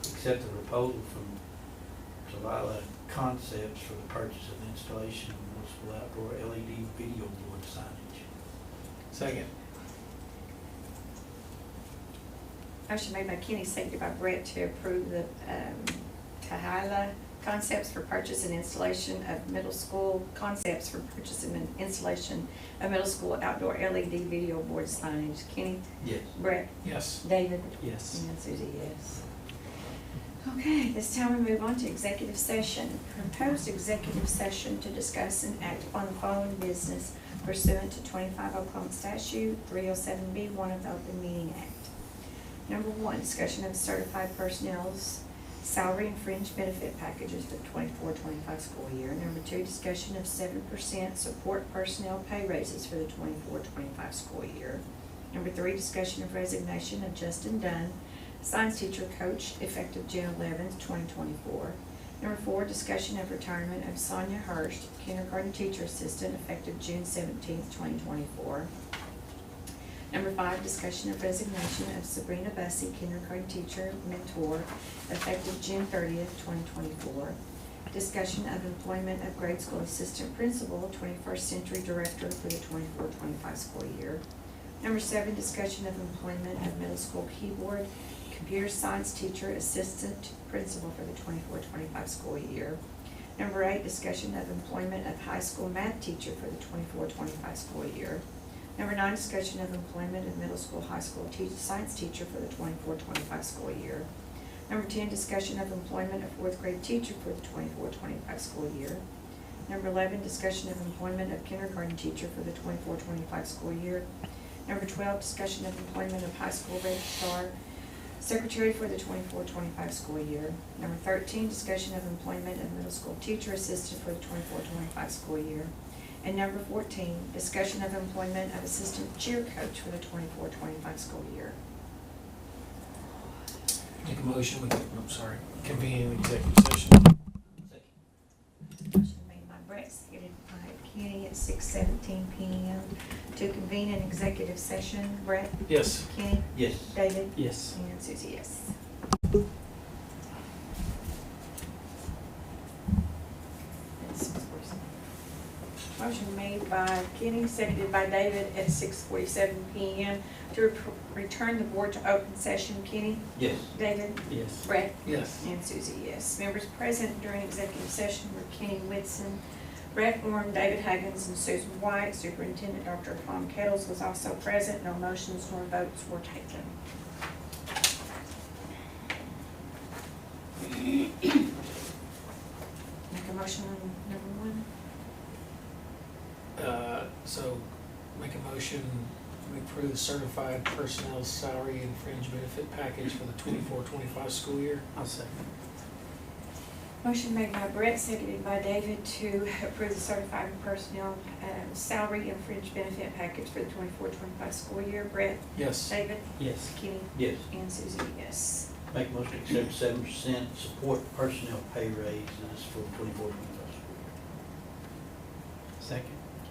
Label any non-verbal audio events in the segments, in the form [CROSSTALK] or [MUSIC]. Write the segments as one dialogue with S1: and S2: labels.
S1: accept the uh, proposal from Zavala Concepts for the purchase of installation of multiple outdoor LED video board signage.
S2: Second.
S3: Motion made by Kenny, seconded by Brett to approve the um, Tahila Concepts for purchase and installation of middle school, concepts for purchase and installation of middle school outdoor LED video board signage. Kenny?
S1: Yes.
S3: Brett?
S2: Yes.
S3: David?
S2: Yes.
S3: And Susie, yes. Okay, this time we move on to executive session. Proposed executive session to discuss and act on the following business pursuant to twenty-five Oklahoma statute, three oh seven B, one of the Open Meeting Act. Number one, discussion of certified personnel's salary and fringe benefit packages for 24-25 school year. Number two, discussion of seven percent support personnel pay raises for the 24-25 school year. Number three, discussion of resignation of Justin Dunn, science teacher coach, effective June eleventh, twenty twenty-four. Number four, discussion of retirement of Sonia Hurst, kindergarten teacher assistant, effective June seventeenth, twenty twenty-four. Number five, discussion of resignation of Sabrina Bussey, kindergarten teacher, mentor, effective June thirtieth, twenty twenty-four. Discussion of employment of grade school assistant principal, twenty-first century director for the 24-25 school year. Number seven, discussion of employment of middle school keyboard, computer science teacher, assistant principal for the 24-25 school year. Number eight, discussion of employment of high school math teacher for the 24-25 school year. Number nine, discussion of employment of middle school, high school teach, science teacher for the 24-25 school year. Number ten, discussion of employment of fourth grade teacher for the 24-25 school year. Number eleven, discussion of employment of kindergarten teacher for the 24-25 school year. Number twelve, discussion of employment of high school registrar, secretary for the 24-25 school year. Number thirteen, discussion of employment of middle school teacher assistant for the 24-25 school year. And number fourteen, discussion of employment of assistant cheer coach for the 24-25 school year.
S2: Make a motion, we, I'm sorry, convene an executive session.
S3: Motion made by Brett, seconded by Kenny at six seventeen P M. To convene an executive session, Brett,
S2: Yes.
S3: Kenny,
S1: Yes.
S3: David,
S2: Yes.
S3: and Susie, yes. That's six forty-seven. Motion made by Kenny, seconded by David at six forty-seven P M. To re- return the board to open session, Kenny,
S1: Yes.
S3: David,
S1: Yes.
S3: Brett,
S2: Yes.
S3: and Susie, yes. Members present during executive session were Kenny Whitson, Brett Orm, David Huggins, and Susan White. Superintendent Dr. Tom Kettles was also present. No motions nor votes were taken. Make a motion on number one?
S2: Uh, so make a motion, we approve certified personnel salary and fringe benefit package for the twenty-four, twenty-five school year.
S1: I'll second.
S3: Motion made by Brett, seconded by David to approve the certified personnel uh, salary and fringe benefit package for the 24-25 school year. Brett,
S2: Yes.
S3: David,
S1: Yes.
S3: Kenny,
S1: Yes.
S3: and Susie, yes.
S1: Make motion to accept seven percent support personnel pay raises for twenty-four, twenty-five school year. Second.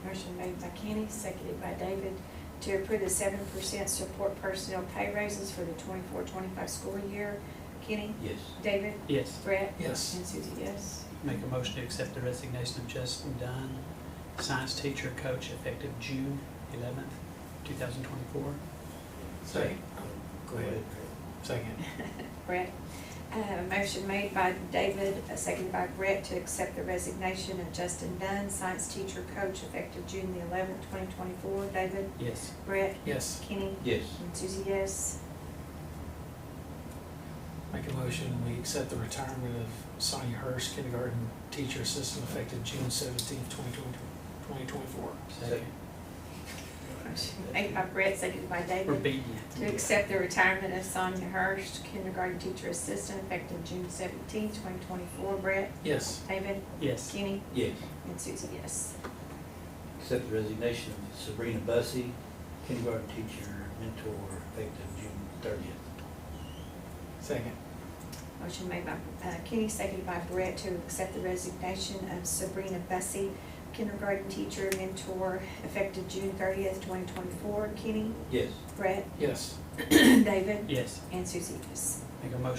S3: Motion made by Kenny, seconded by David, to approve the seven percent support personnel pay raises for the 24-25 school year. Kenny,
S1: Yes.
S3: David,
S4: Yes,
S3: Brett,
S2: Yes.
S3: and Susie, yes.
S4: make a motion to accept the resignation of Justin Dunn, science teacher coach effective June eleventh, two thousand twenty-four.
S2: Second. Go ahead. Second.
S3: Brett. Uh, motion made by David, uh, seconded by Brett, to accept the resignation of Justin Dunn, science teacher coach, effective June the eleventh, twenty twenty-four. David,
S4: Yes,
S3: Brett,
S2: Yes.
S3: Kenny,
S1: Yes.
S3: and Susie, yes.
S2: Make a motion, we accept the retirement of Sonia Hurst, kindergarten teacher assistant, effective June seventeenth, twenty twenty, twenty twenty-four.
S1: Second.
S3: Motion Made by Brett, seconded by David.
S4: we're beating
S3: To accept the retirement of Sonia Hurst, kindergarten teacher assistant, effective June seventeenth, twenty twenty-four. Brett,
S2: Yes.
S3: David,
S4: you. Yes,
S3: Kenny,
S1: Yes.
S3: and Susie, yes.
S1: Accept the resignation of Sabrina Bussey, kindergarten teacher, mentor, effective June thirtieth.
S2: Second.
S3: Motion made by uh, Kenny, seconded by Brett, to accept the resignation of Sabrina Bussey, kindergarten teacher, mentor, effective June thirtieth, twenty twenty-four. Kenny,
S1: Yes.
S3: Brett, [CLEARS THROAT]
S2: Yes.
S3: David,
S4: yes,
S3: and Susie, yes.
S4: make a motion